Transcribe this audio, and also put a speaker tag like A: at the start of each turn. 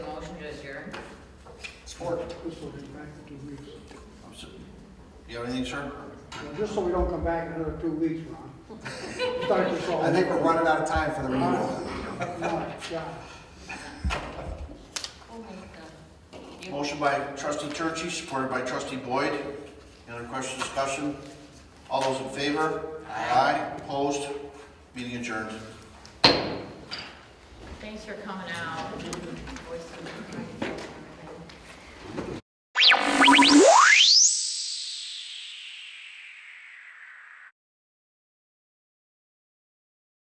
A: Support.
B: This will be back in two weeks.
A: I'm s- You have anything, sir?
B: Now, Just so we don't come back in another two weeks, Ron. Start this all.
A: I think we're running out of time for the renewal.
B: over. No, yeah.
C: We'll make the-
A: Motion by trustee Churchy, supported by trustee Boyd. Any other questions, discussion? All those in favor? Aye. Opposed? Meeting adjourned.
C: Thanks for coming out. Voice of-